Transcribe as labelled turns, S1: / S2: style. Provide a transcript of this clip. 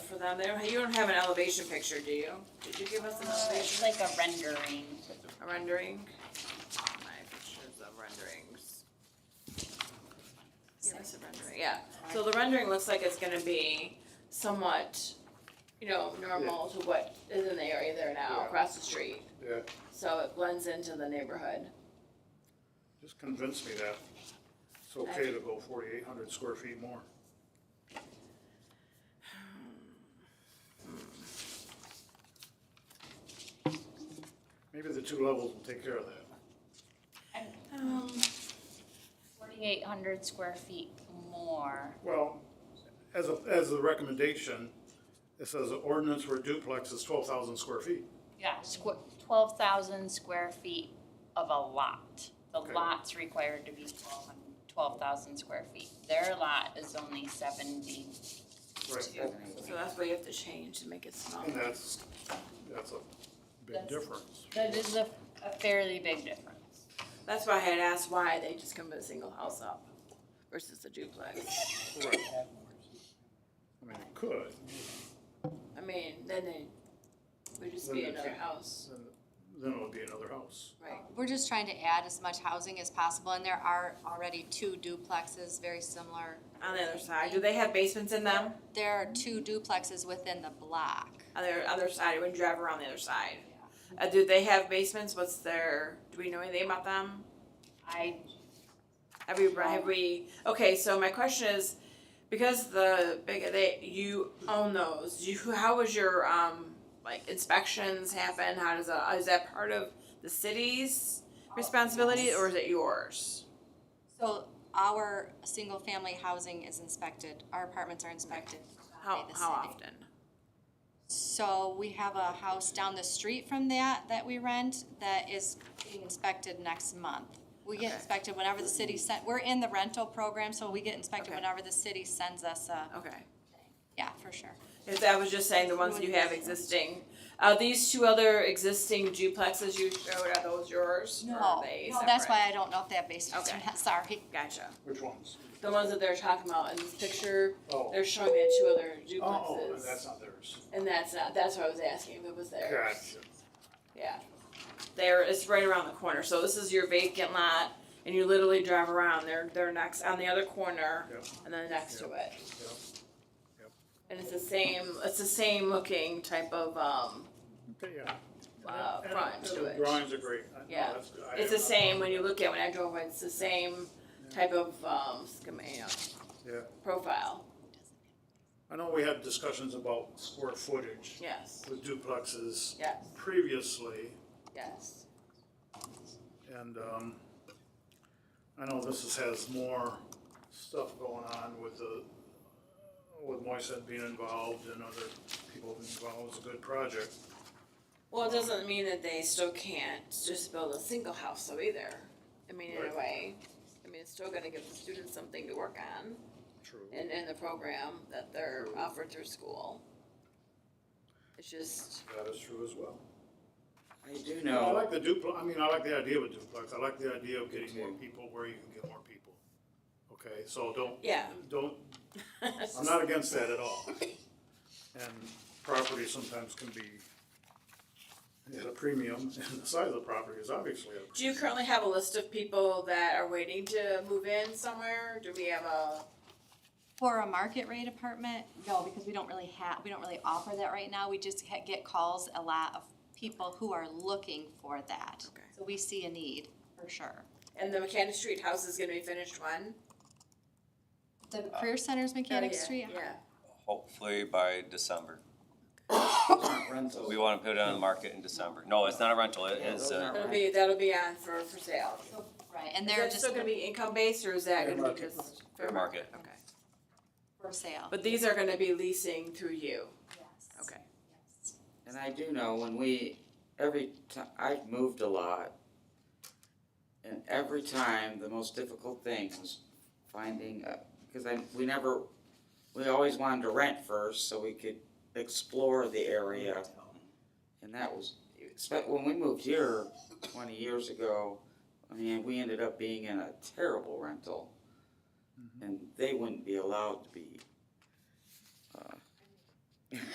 S1: down there, you don't have an elevation picture, do you? Did you give us an elevation,
S2: It's like a rendering.
S1: a rendering? My pictures of renderings. Give us a rendering, yeah, so the rendering looks like it's gonna be somewhat, you know, normal to what is in the area there now,
S3: Yeah.
S1: across the street.
S3: Yeah,
S1: So it blends into the neighborhood.
S3: just convince me that it's okay to go forty-eight hundred square feet more. Maybe the two levels will take care of that.
S1: Um,
S2: Forty-eight hundred square feet more.
S3: Well, as a, as a recommendation, it says the ordinance for duplex is twelve thousand square feet.
S2: Yeah, squ- twelve thousand square feet of a lot. The
S3: Okay.
S2: lot's required to be 12,000 12,000 square feet. Their lot is only seventy.
S3: Right.
S1: so that's what you have to change to make it smaller.
S3: And that's, that's a big
S2: That's-
S3: difference.
S2: That is a, a fairly big difference.
S1: That's why I had asked why they just come to a single house up versus a duplex.
S3: Right. I mean, it could,
S1: I mean, then they would just be
S3: Then they
S1: another
S3: can't.
S1: house,
S3: then, then it'll be another house.
S1: right?
S4: We're just trying to add as much housing as possible, and there are already two duplexes very similar.
S1: On the other side, do they have basements in them?
S4: There are two duplexes within the block.
S1: On the other side, when you drive around the other side. Uh, do they have basements? What's their, do we know anything about them?
S2: I,
S1: Have we, have we, okay, so my question is, because the big, they, you own those, you, how was your, um, like inspections happen? How does that, is that part of the city's responsibility or is it yours?
S4: So our single-family housing is inspected, our apartments are inspected by
S1: How,
S4: the
S1: how
S4: city.
S1: often?
S4: So we have a house down the street from that, that we rent, that is being inspected next month. We get
S1: Okay.
S4: inspected whenever the city sent, we're in the rental program, so we get inspected
S1: Okay.
S4: whenever the city sends us a,
S1: Okay.
S4: yeah, for sure.
S1: If I was just saying the ones that you have existing, uh, these two other existing duplexes you showed, are those yours? or
S4: No,
S1: are they
S4: no, that's
S1: separate?
S4: why I don't know if they have basements or
S1: Okay.
S4: not, sorry.
S1: Gotcha.
S3: Which ones?
S1: The ones that they're talking about in this picture,
S3: Oh,
S1: they're showing me two other duplexes.
S3: oh, that's not theirs.
S1: And that's not, that's what I was asking, if it was there.
S3: Gotcha.
S1: Yeah. There, it's right around the corner, so this is your vacant lot, and you literally drive around, they're, they're next, on the other corner,
S3: Yep.
S1: and then next to it.
S3: Yep. Yep.
S1: And it's the same, it's the same looking type of, um,
S3: Okay, yeah.
S1: uh,
S3: And-
S1: front
S3: and
S1: to
S3: the
S1: it.
S3: Drawings are great. I- no,
S1: Yeah.
S3: that's good. I
S1: It's the
S3: have-
S1: same when you look at, when I drove, by, it's the same type of, um, schema, you know,
S3: Yeah,
S1: profile,
S3: I know we had discussions about square footage
S1: yes,
S3: with duplexes
S1: yes,
S3: previously,
S1: yes.
S3: and, um, I know this is, has more stuff going on with the, with Moisette being involved and other people involved, it's a good project.
S1: Well, it doesn't mean that they still can't just build a single house though either. I mean, in a
S3: Right.
S1: way, I mean, it's still gonna give the students something to work on
S3: True.
S1: in, in the program that they're offered through school. It's just,
S3: That is true as well.
S5: I do
S3: I
S5: know,
S3: like the duplex, I mean, I like the idea of a duplex, I like the idea of getting more
S5: too.
S3: people where you can get more people. Okay, so don't,
S1: yeah.
S3: don't, I'm not against that at all. And property sometimes can be at a premium, and the size of the property is obviously a,
S1: Do you currently have a list of people that are waiting to move in somewhere? Do we have a,
S4: For a market rate apartment, no, because we don't really have, we don't really offer that right now, we just ha- get calls a lot of people who are looking for that.
S1: Okay.
S4: So we see a need, for sure.
S1: and the Mechanic Street house is gonna be finished when?
S4: The Career Center's Mechanic
S1: Oh, yeah,
S4: Street,
S1: Yeah.
S6: Hopefully by December.
S5: rental.
S6: We want to put it on the market in December. No, it's not a rental, it
S5: Yeah,
S6: is,
S5: those
S6: uh,
S5: aren't
S1: That'll be, that'll be on for, for sale.
S4: right, and
S1: Is
S4: they're
S1: that
S4: just
S1: still gonna be income based or is that gonna
S5: Fair
S1: be
S5: market.
S1: just?
S6: Fair market.
S1: Okay.
S4: for sale.
S1: But these are gonna be leasing through you,
S4: Yes.
S1: okay.
S5: And I do know when we, every time, I've moved a lot. And every time, the most difficult thing was finding, because I, we never, we always wanted to rent first so we could explore the area. And that was, except when we moved here twenty years ago, I mean, we ended up being in a
S3: Mm-hmm.
S5: terrible rental. And they wouldn't be allowed to be, uh,